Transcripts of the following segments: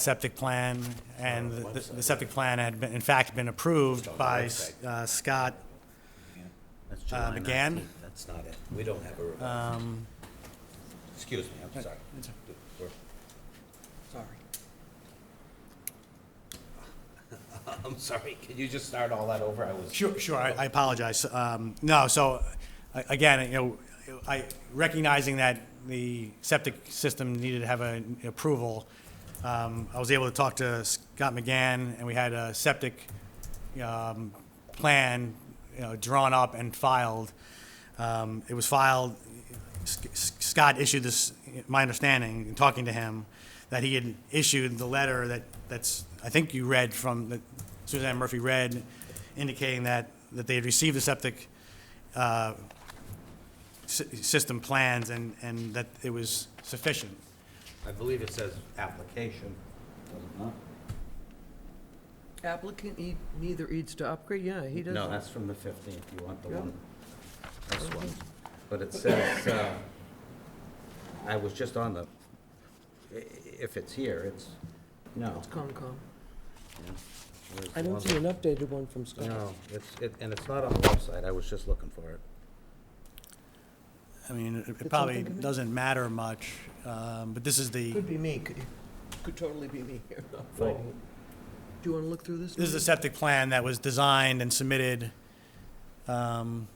septic plan, and the the septic plan had been, in fact, been approved by uh, Scott. That's Um, July McGann? 19th. That's not it. We don't have a revised. Excuse me, I'm sorry. We're- Sorry. I'm sorry. Can you just start all that over? I was. Sure, sure, I I apologize. Um, No, so, a- again, you know, I, recognizing that the septic system needed to have an approval, um, I was able to talk to Scott McGann, and we had a septic um, plan, you know, drawn up and filed. Um, It was filed, S- S- Scott issued this, my understanding, in talking to him, that he had issued the letter that, that's, I think you read from, that Suzanne Murphy read, indicating that, that they had received the septic uh, sy- system plans and, and that it was sufficient. I believe it says application. does it not? Applicant e- neither needs to upgrade, yeah, he doesn't. No, that's from the 15th. You want the Yeah. one, this one. But it says, uh, I was just on the, i- if it's here, it's, no. It's Concom. yeah. Where's I the don't one see that- an updated one from Scott. No, it's, it- and it's not on the website. I was just looking for it. I mean, it- it Did probably something come in? doesn't matter much, um, but this is the, Could be me, could, could totally be me here, not finding it. Do you want to look through this? this is the Mike? septic plan that was designed and submitted um,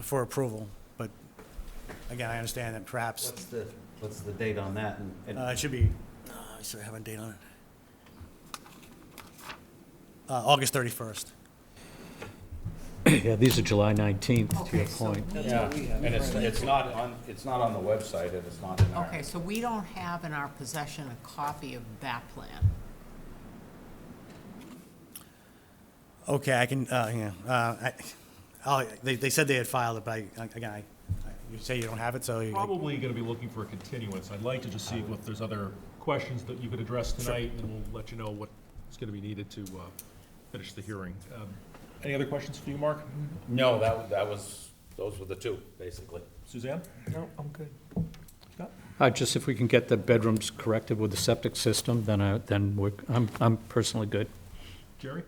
for approval, but again, I understand that perhaps, What's the, what's the date on that? and- and- uh, it should be, uh, I should have a date on it. Uh, August 31st. Yeah, these are July 19th, to your Okay, so point. we- Yeah, and it's, it's not on, it's not on the website, and it's not in our. Okay, so we don't have in our possession a copy of that plan. Okay, I can, uh, yeah, uh, I, I'll- they, they said they had filed it, but I, again, I, you say you don't have it, so you. Probably going to be looking for a continuance. I'd like to just see if there's other questions that you could address tonight, and we'll let you know what is going to be needed to uh, finish the hearing. Um, Any other questions for you, Mark? Mm-hmm. No, that, that was, those were the two, basically. Suzanne? No, I'm good. Uh, Just if we can get the bedrooms corrected with the septic system, then I, then we're, I'm, I'm personally good. Jerry?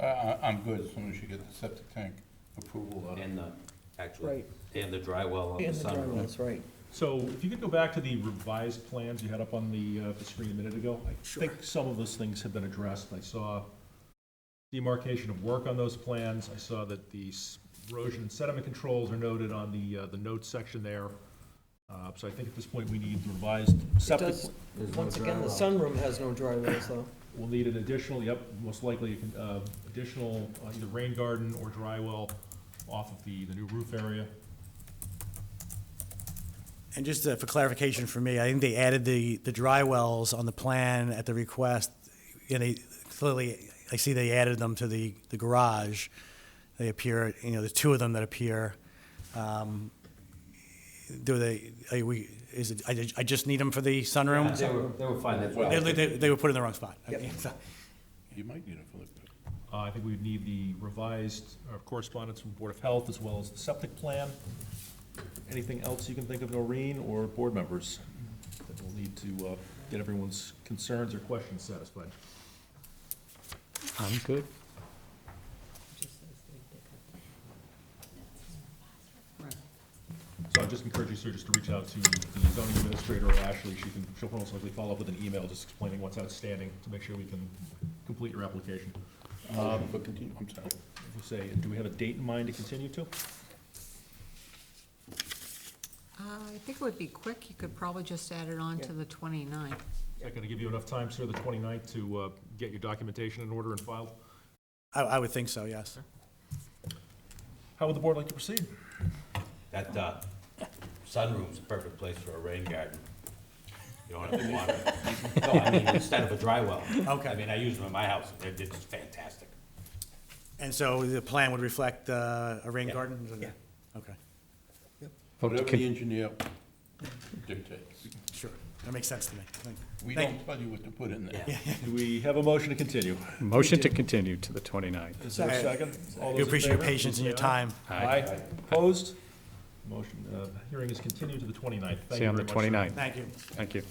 I- I- I'm good, as long as you get the septic tank approval. uh, And the, actually, Right. and the dry well on the And the sunroom. drywall, that's right. So if you could go back to the revised plans you had up on the, uh, the screen a minute ago. I think some of those things have been addressed. I saw demarcation of work on those plans. I saw that the s- erosion and sediment controls are noted on the, uh, the notes section there. Uh, So I think at this point, we need the revised It septic. does, once again, the sunroom has no drywells, though. We'll need an additional, yep, most likely, uh, additional uh, either rain garden or dry well off of the, the new roof area. And just uh, for clarification for me, I think they added the, the dry wells on the plan at the request, and they, clearly, I see they added them to the, the garage. They appear, you know, the two of them that appear. um, Do they, are we, is it, I, ju- I just need them for the sunroom? They were, they were fine, that's They, why. they, they were put in the wrong spot. You might need it for the, Uh, I think we would need the revised uh, correspondence from Board of Health as well as the septic plan. Anything else you can think of, Noreen, or board members? That we'll need to, uh, get everyone's concerns or questions satisfied. I'm good. So I just encourage you, sir, just to reach out to the zoning administrator or Ashley, she can, she'll most likely follow up with an email just explaining what's outstanding to make sure we can complete your application. motion for continue, I'm sorry. We'll Say, do we have a date in mind to continue to? Uh, I think it would be quick, you could probably just add it on to the 29th. Is that gonna give you enough time, sir, the 29th, to uh, get your documentation in order and filed? I, I would think so, yes. How would the board like to proceed? That, uh, sunroom's a perfect place for a rain garden. You don't have to water. it. No, I mean, instead of a dry well. Okay. I mean, I use them in my house, and they're just fantastic. And so the plan would reflect uh, a rain garden? Yeah. Okay, Vote to Whatever the con- engineer dictates. sure. That makes sense to me. Thank you. We don't tell you what to put in there. Do we have a motion to continue? Motion to continue to the 29th. Is there a second? All those We in appreciate your favor? patience and your Say time. Aye. Aye. Opposed? Motion, uh, hearing is continued to the 29th. Thank See you you on the very much, 29th. sir. Thank you. Thank you.